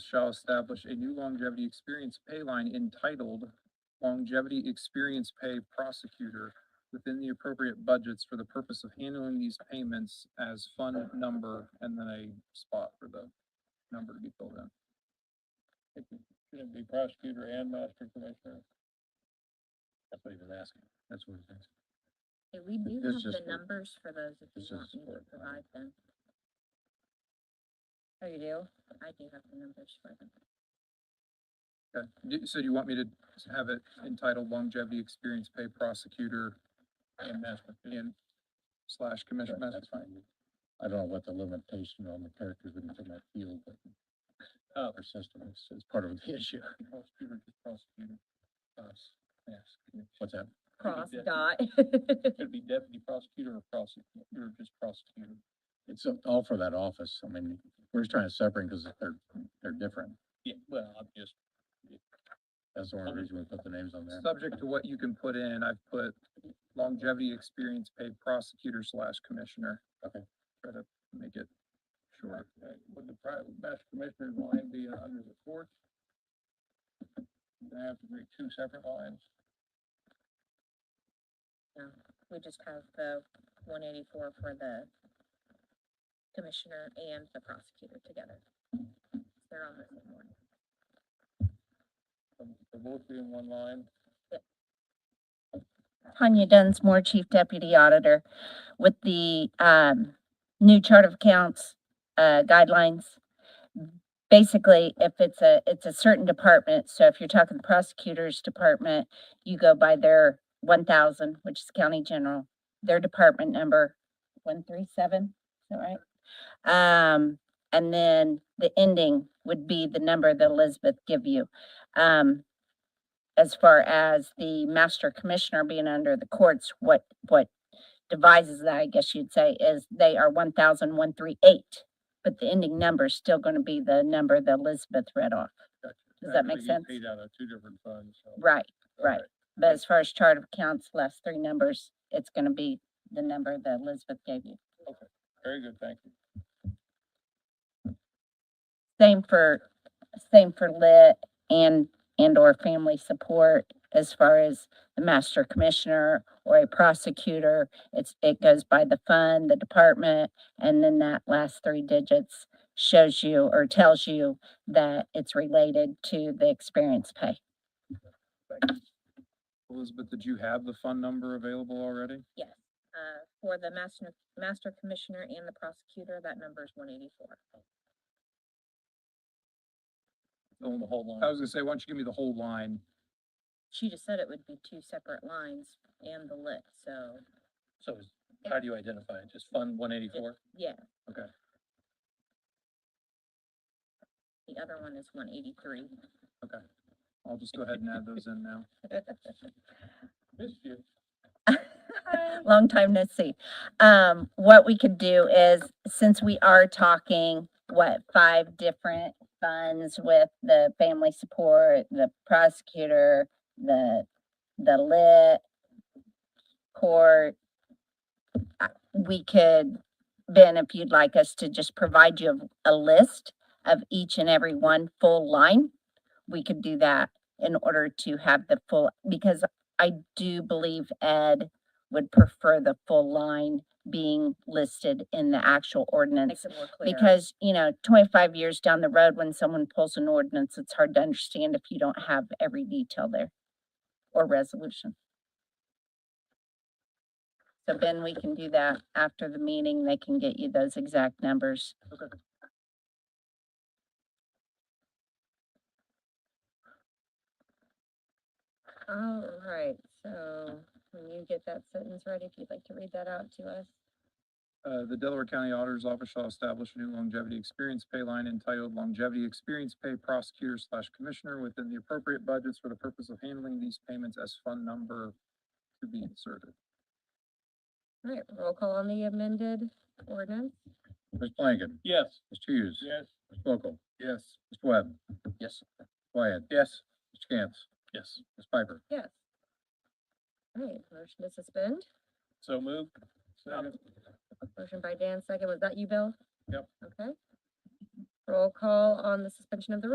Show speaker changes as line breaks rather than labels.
shall establish a new longevity experience pay line entitled Longevity Experience Pay Prosecutor within the appropriate budgets for the purpose of handling these payments as fund number and then a spot for the number to be filled in.
Should it be prosecutor and master commissioner? That's what he was asking. That's what he's asking.
Yeah, we do
It's
have the
just for-
numbers for those if
it's
you want
just
me to
for-
provide them. Oh, you do? I do have the numbers for them.
Okay, Do- so do you want me to have it entitled longevity experience pay prosecutor
And master.
in slash commission
Sure,
master?
That's fine. I don't know what the limitation on the characters within that field, but uh, our system is, is part of the issue. Prosecutor, prosecutor, us, yes. What's that?
Cross
definitely-
dot.
Could be deputy prosecutor or prosecutor, just prosecutor. It's all for that office. I mean, we're just trying to separate because they're, they're different. Yeah, well, I'm just. That's the only reason we put the names on there.
Subject to what you can put in, I've put longevity experience paid prosecutor slash commissioner.
Okay.
Try to make it short.
Would the private master commissioner's line be under the court? They have to be two separate lines.
We just have the one eighty-four for the commissioner and the prosecutor together. They're on the same one.
They're both be in one line.
Tanya Dunsmore, Chief Deputy Auditor, with the um, new chart of accounts uh, guidelines. Basically, if it's a, it's a certain department, so if you're talking prosecutor's department, you go by their one thousand, which is county general, their department number, one three seven, is that right? Um, and then the ending would be the number that Elizabeth give you. Um, as far as the master commissioner being under the courts, what, what devises that, I guess you'd say, is they are one thousand one three eight. But the ending number is still gonna be the number that Elizabeth read off. Does that make
Actually, you
sense?
Paid out of two different funds, so.
Right, right.
Okay.
But as far as chart of accounts, last three numbers, it's gonna be the number that Elizabeth gave you.
Very good, thank you.
Same for, same for lit and, and or family support as far as the master commissioner or a prosecutor. It's, it goes by the fund, the department, and then that last three digits shows you or tells you that it's related to the experience pay.
Elizabeth, did you have the fund number available already?
Yes, uh, for the master, master commissioner and the prosecutor, that number is one eighty-four.
The whole line.
I was gonna say, why don't you give me the whole line?
She just said it would be two separate lines and the lit, so,
So is- how do you identify it? Just fund one eighty-four?
yeah.
Okay.
The other one is one eighty-three.
I'll just go ahead and add those in now.
Missed you.
Long time no see. Um, what we could do is, since we are talking, what, five different funds with the family support, the prosecutor, the, the lit, court, uh, we could, Ben, if you'd like us to just provide you a list of each and every one full line, we could do that in order to have the full, because I do believe Ed would prefer the full line being listed in the actual ordinance.
Makes it more clear.
Because, you know, twenty-five years down the road, when someone pulls an ordinance, it's hard to understand if you don't have every detail there or resolution. So Ben, we can do that after the meeting. They can get you those exact numbers.
All right, so when you get that sentence ready, if you'd like to read that out to us.
Uh, the Delaware County Auditor's Office shall establish a new longevity experience pay line entitled longevity experience pay prosecutor slash commissioner within the appropriate budgets for the purpose of handling these payments as fund number to be inserted.
All right, roll call on the amended ordinance?
Ms. Flanagan.
Yes.
Mr. Hughes.
Yes.
Ms. Mokel.
Yes.
Mr. Webb.
Yes.
Wyatt.
Yes.
Mr. Cantz.
Yes.
Ms. Piper.
Yes. All right, motion to suspend,
So moved.
motion by Dan, second, was that you, Bill?
Yep.
Okay.
Roll call on the suspension of the rules.